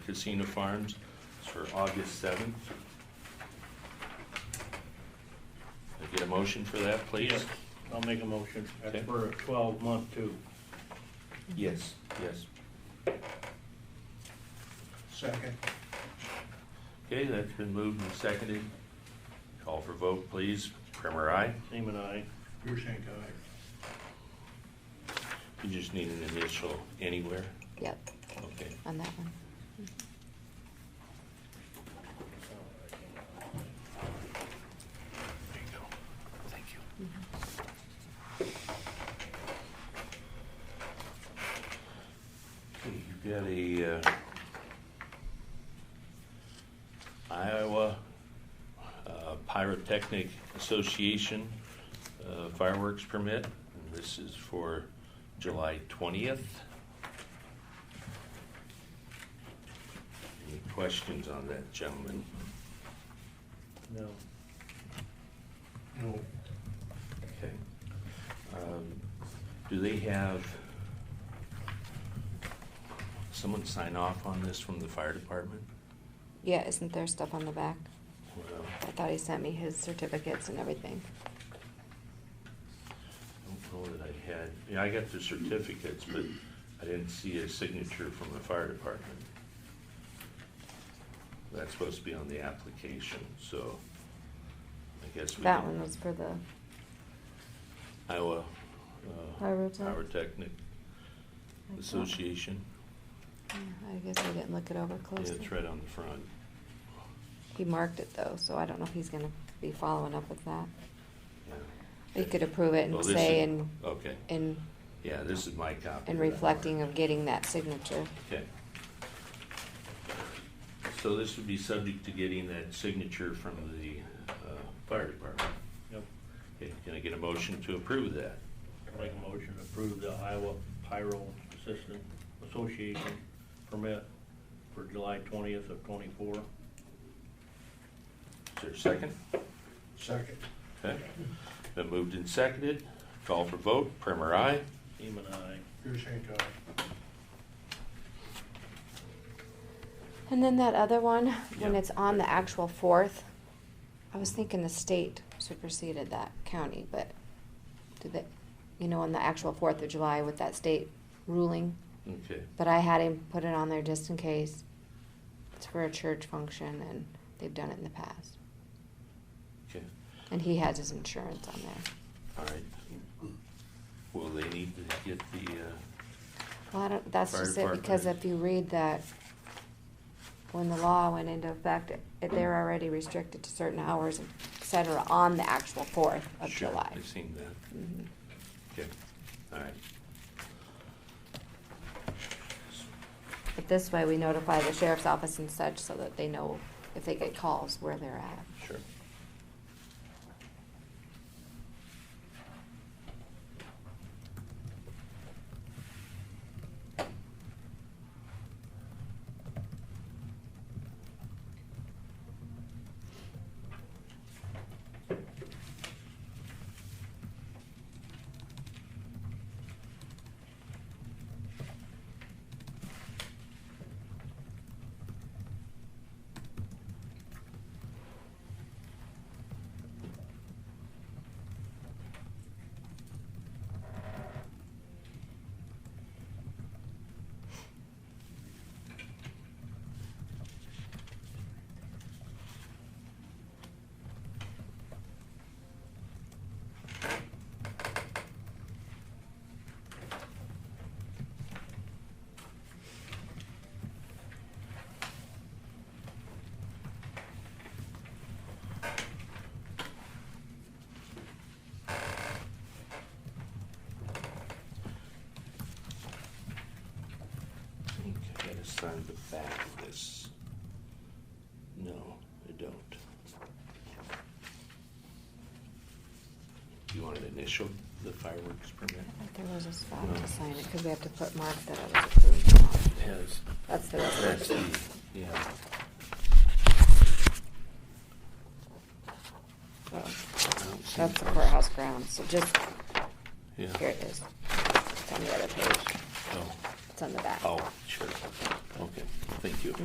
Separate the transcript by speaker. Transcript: Speaker 1: Casino Farms for August seventh. I Get a motion for that, please?
Speaker 2: Yes, I'll make a motion.
Speaker 1: Okay.
Speaker 2: That's for a twelve-month too.
Speaker 1: Yes. Yes.
Speaker 2: Second.
Speaker 1: Okay, that's been moved and seconded. Call for vote, please. Primer, aye.
Speaker 2: Seaman, aye.
Speaker 3: Your shank aye.
Speaker 1: You just need an initial anywhere.
Speaker 4: Yep,
Speaker 1: Okay.
Speaker 4: on that one.
Speaker 1: There you go. Thank you. Okay, you got a uh, Iowa uh, Pyrotechnic Association uh, fireworks permit. And This is for July twentieth. Any questions on that, gentlemen?
Speaker 2: No.
Speaker 3: No,
Speaker 1: Okay. Um, Do they have someone sign off on this from the fire department?
Speaker 4: Yeah, isn't there stuff on the back?
Speaker 1: Well,
Speaker 4: I thought he sent me his certificates and everything.
Speaker 1: I don't know that I had, yeah, I got the certificates, but I didn't see a signature from the fire department. That's supposed to be on the application, so I guess we.
Speaker 4: That
Speaker 1: can-
Speaker 4: one was for the,
Speaker 1: Iowa. uh,
Speaker 4: Pyrotech-
Speaker 1: Pyrotechnic Association.
Speaker 4: Yeah, I guess I didn't look it over
Speaker 1: Yeah,
Speaker 4: closely.
Speaker 1: it's right on the front.
Speaker 4: He marked it though, so I don't know if he's gonna be following up with that.
Speaker 1: Yeah.
Speaker 4: He could approve
Speaker 1: Oh,
Speaker 4: it and
Speaker 1: this
Speaker 4: say
Speaker 1: is-
Speaker 4: in,
Speaker 1: Okay,
Speaker 4: in,
Speaker 1: yeah, this is my copy.
Speaker 4: in
Speaker 1: that I
Speaker 4: reflecting
Speaker 1: marked.
Speaker 4: of getting that signature.
Speaker 1: Okay. So this would be subject to getting that signature from the uh, fire department.
Speaker 2: Yep.
Speaker 1: Okay, Can I get a motion to approve that?
Speaker 2: Make a motion to approve the Iowa Pyro Assistant Association permit for July twentieth of twenty-four.
Speaker 1: Is there a second?
Speaker 3: second.
Speaker 1: Okay. Been moved and seconded. Call for vote. Primer, aye.
Speaker 2: Seaman, aye.
Speaker 3: Your shank aye.
Speaker 4: And then that other one, when
Speaker 1: Yeah.
Speaker 4: it's on the actual fourth, I was thinking the state superseded that county, but did they, you know, on the actual Fourth of July with that state ruling?
Speaker 1: Okay,
Speaker 4: But I had him put it on there just in case. It's for a church function and they've done it in the past.
Speaker 1: okay,
Speaker 4: And he has his insurance on there.
Speaker 1: all right. Will they need to get the, uh,
Speaker 4: Well, I don't, that's
Speaker 1: Fire
Speaker 4: just it, because
Speaker 1: department.
Speaker 4: if you read that, when the law went into effect, it- they're already restricted to certain hours, et cetera, on the actual fourth of
Speaker 1: Sure,
Speaker 4: July.
Speaker 1: I've seen that.
Speaker 4: Mhm.
Speaker 1: Okay, all right.
Speaker 4: But this way, we notify the sheriff's office and such, so that they know if they get calls where they're at.
Speaker 1: Sure. I gotta sign the back of this. No, I don't. You want to initial the fireworks permit?
Speaker 4: I think there was a spot
Speaker 1: No.
Speaker 4: to sign it, because we have to put mark that it was approved. on.
Speaker 1: Yes.
Speaker 4: That's the
Speaker 1: That's the,
Speaker 4: resolution.
Speaker 1: yeah.
Speaker 4: So,
Speaker 1: I don't see
Speaker 4: Oh. That's the
Speaker 1: this.
Speaker 4: courthouse grounds, so just,
Speaker 1: Yeah.
Speaker 4: here it is. It's on the other page.
Speaker 1: Oh,
Speaker 4: It's on the back.
Speaker 1: oh, sure. Okay, thank you.